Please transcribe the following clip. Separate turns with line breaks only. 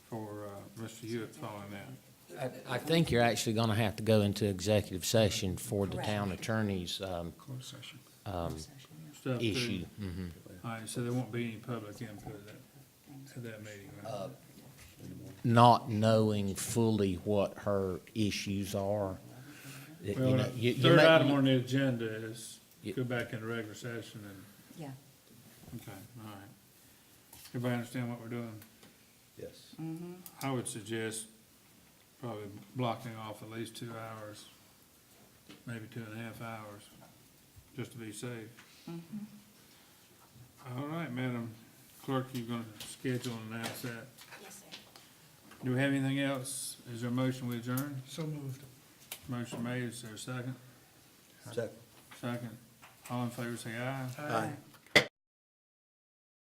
Mr. Hewitt following that.
I, I think you're actually gonna have to go into executive session for the
Correct.
town attorney's, um,
Closed session.
um,
Stuff through-
issue. Mhm.
All right, so there won't be any public input at that, at that meeting,
Uh,
right?
Not knowing fully what her issues are. It- you
Well,
know, you- you
Third
may-
item on the agenda is
You-
go back into regular session and,
Yeah,
okay, all right. Everybody understand what we're doing?
Yes.
I would suggest probably blocking off at least two hours, maybe two and a half hours, just to be safe.
Mm-hmm.
All right, Madam Clerk, you gonna schedule and announce that?
Yes, sir.
Do we have anything else? Is there a motion we adjourn?
So moved.
Motion made, is there a second?
Second.
Second. All in favor, say aye.
Aye.